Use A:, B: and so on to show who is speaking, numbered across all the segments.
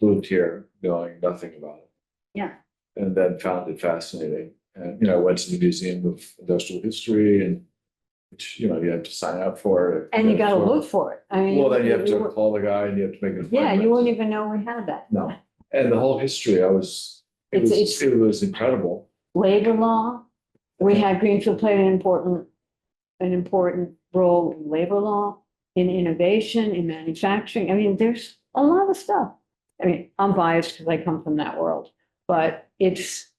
A: moved here knowing nothing about it.
B: Yeah.
A: And then found it fascinating. And, you know, I went to the Museum of Industrial History and, which, you know, you have to sign up for it.
B: And you
A: get it
B: gotta
A: for-
B: look for it. I mean.
A: Well, then you have to
B: won't-
A: call the guy and you have to make an
B: Yeah,
A: appointment.
B: you won't even know we had that.
A: No. And the whole history, I was, it
B: It's-
A: was,
B: it's-
A: it was incredible.
B: Labor law, we had Greenfield played an important, an important role in labor law, in innovation, in manufacturing. I mean, there's a lot of stuff. I mean, I'm biased because I come from that world, but it's,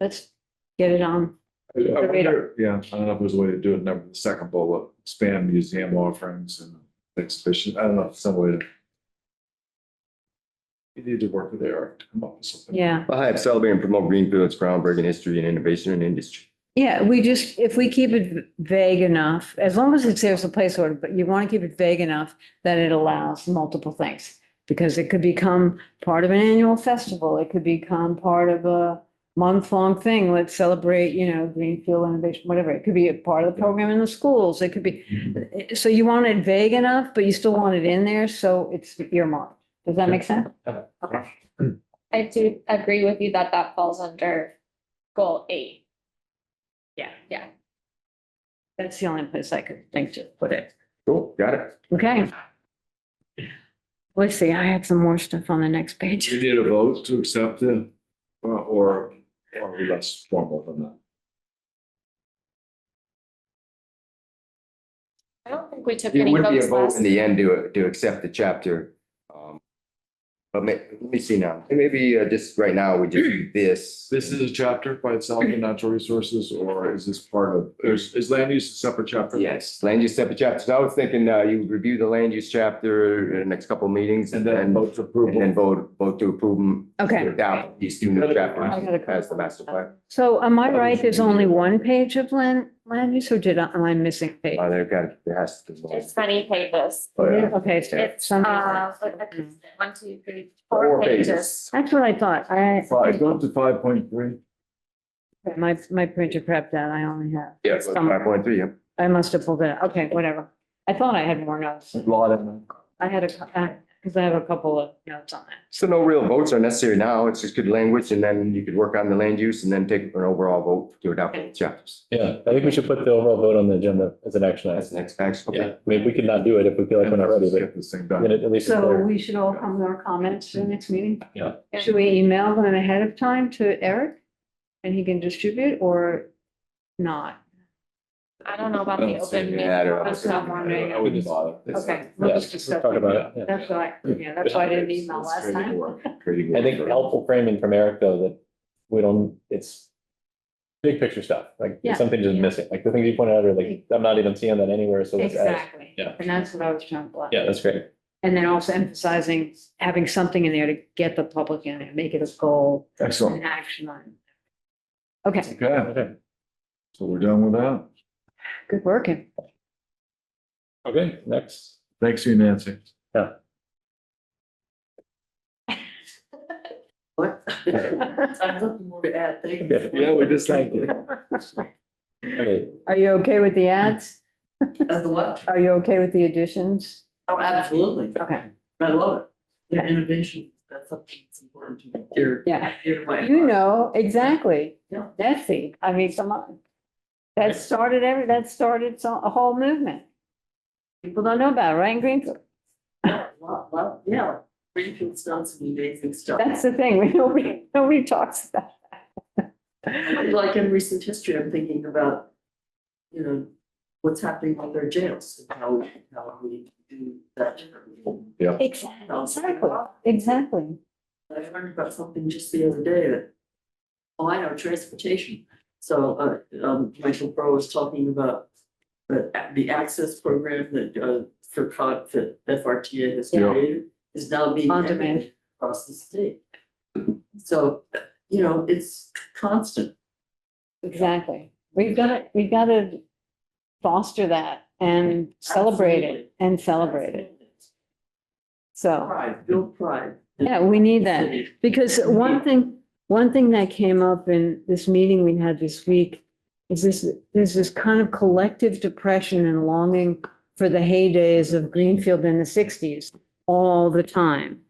B: let's get it on.
A: I- I
B: The radar.
A: wonder- Yeah, I don't know if there's a way to do it, number the second bullet, expand museum offerings and exhibition, I don't know, some way to. You need to work with AR to come up with something.
B: Yeah.
C: Well, hi, I'm celebrating and promote Greenfield's groundbreaking history and innovation in industry.
B: Yeah, we just, if we keep it vague enough, as long as it's, there's a place order, but you want to keep it vague enough that it allows multiple things. Because it could become part of an annual festival. It could become part of a month-long thing. Let's celebrate, you know, Greenfield Innovation, whatever. It could be a part of the program in the schools. It could be, eh, so you want it vague enough, but you still want it in there, so it's earmarked. Does that make sense?
D: I do agree with you that that falls under goal eight.
B: Yeah.
D: Yeah.
B: That's the only place I could think to put it.
C: Cool, got it.
B: Okay. Let's see, I had some more stuff on the next
A: Do you
B: page.
A: need a vote to accept it, or, or are we less formal than that?
D: I don't think we took
C: It
D: any
C: would be a
D: votes
C: vote
D: last.
C: in the end to, to accept the chapter. um, But ma- let me see now, maybe uh, just right now, we just do this.
A: This is a chapter by itself in natural resources, or is this part of, is, is land use a separate chapter?
C: Yes, land use separate chapters. So I was thinking uh, you would review the land use chapter in the next couple of meetings
A: And then vote to approve.
C: And then vote, vote to approve them.
B: Okay,
C: Without these two new
B: I got a
C: chapters
B: couple
C: as the master plan.
B: so am I right, there's only one page of land, land use, or did I, am I missing page?
C: Uh, they've got- there has to be one.
D: It's many pages.
C: Oh, yeah.
B: Okay, so
D: It's,
B: some,
D: uh, what- what is
B: that's
D: it? one, two, three, four pages.
B: what I thought, I,
A: Five, go to five point three.
B: my, my printer prepped that, I only have,
C: Yeah, five point three, yeah.
B: I must have pulled it, out. okay, whatever. I thought I had more notes,
A: Lot in
B: I had a, because I have a couple of notes on that.
C: So no real votes are necessary now. It's just good language and then you could work on the land use and then take an overall vote to adopt the chapters.
E: Yeah, I think we should put the overall vote on the agenda as an action
C: That's
E: item.
C: the next action.
E: Yeah,
C: Okay.
E: I mean, we could not do it if we feel like we're not ready, but
A: Get this thing
E: then
A: done.
E: at least. it's
B: So
E: there.
B: we should all come with our comments to the next meeting?
E: Yeah.
B: Should we email them ahead of time to Eric? And he can distribute or not?
D: I don't know about the
A: Let's see,
D: open meeting.
C: yeah, I don't know.
D: That's not one right
A: I
D: now.
A: wouldn't bother.
B: Okay.
E: Yeah,
B: we'll just discuss
E: Talk about it.
B: That's why, yeah, that's why I didn't email last time.
E: yeah. I think helpful framing from Eric though, that we don't, it's big picture stuff, like
B: Yeah.
E: something just missing, like the things you pointed out are like, I'm not even seeing that anywhere, so let's add.
B: Exactly.
E: Yeah.
B: And that's what I was trying to. block.
E: Yeah, that's great.
B: And then also emphasizing having something in there to get the public in and make it a goal,
A: Excellent.
B: an action on. Okay,
A: Okay,
E: Okay,
A: so we're done with that.
B: good working.
E: okay, next.
A: Thanks to you, Nancy.
F: What? I'm looking more to add things.
E: Yeah,
A: we just thank you.
E: Okay,
B: Are you okay with the ads?
F: As the what?
B: Are you okay with the additions?
F: Oh, absolutely.
B: Okay,
F: I love it. The innovation, that's something that's important to me. You're,
B: yeah.
F: you're my.
B: You know, exactly.
F: Yeah.
B: That's the, I mean, come on. That started every, that started so, a whole movement. People don't know about it, right in Greenfield?
F: Yeah, Well, well, yeah. Greenfield's done some amazing stuff.
B: That's the thing, we- nobody, nobody talks about.
F: Like in recent history, I'm thinking about, you know, what's happening with their jails and how, how we do that.
A: Yeah.
B: Exactly, exactly.
F: I learned about something just the other day that, oh, I know, transportation. So, uh, um, Michael Burrow was talking about the, the access program that, uh, for COG, that FRTA has
A: Yeah.
F: created is now being
B: On demand.
F: across the state. So, you know, it's constant.
B: Exactly. We've got to, we've got to foster that and celebrate it and celebrate it. So,
F: Pride, build pride.
B: yeah, we need that. Because one thing, one thing that came up in this meeting we had this week is this, there's this kind of collective depression and longing for the heydays of Greenfield in the sixties all the time.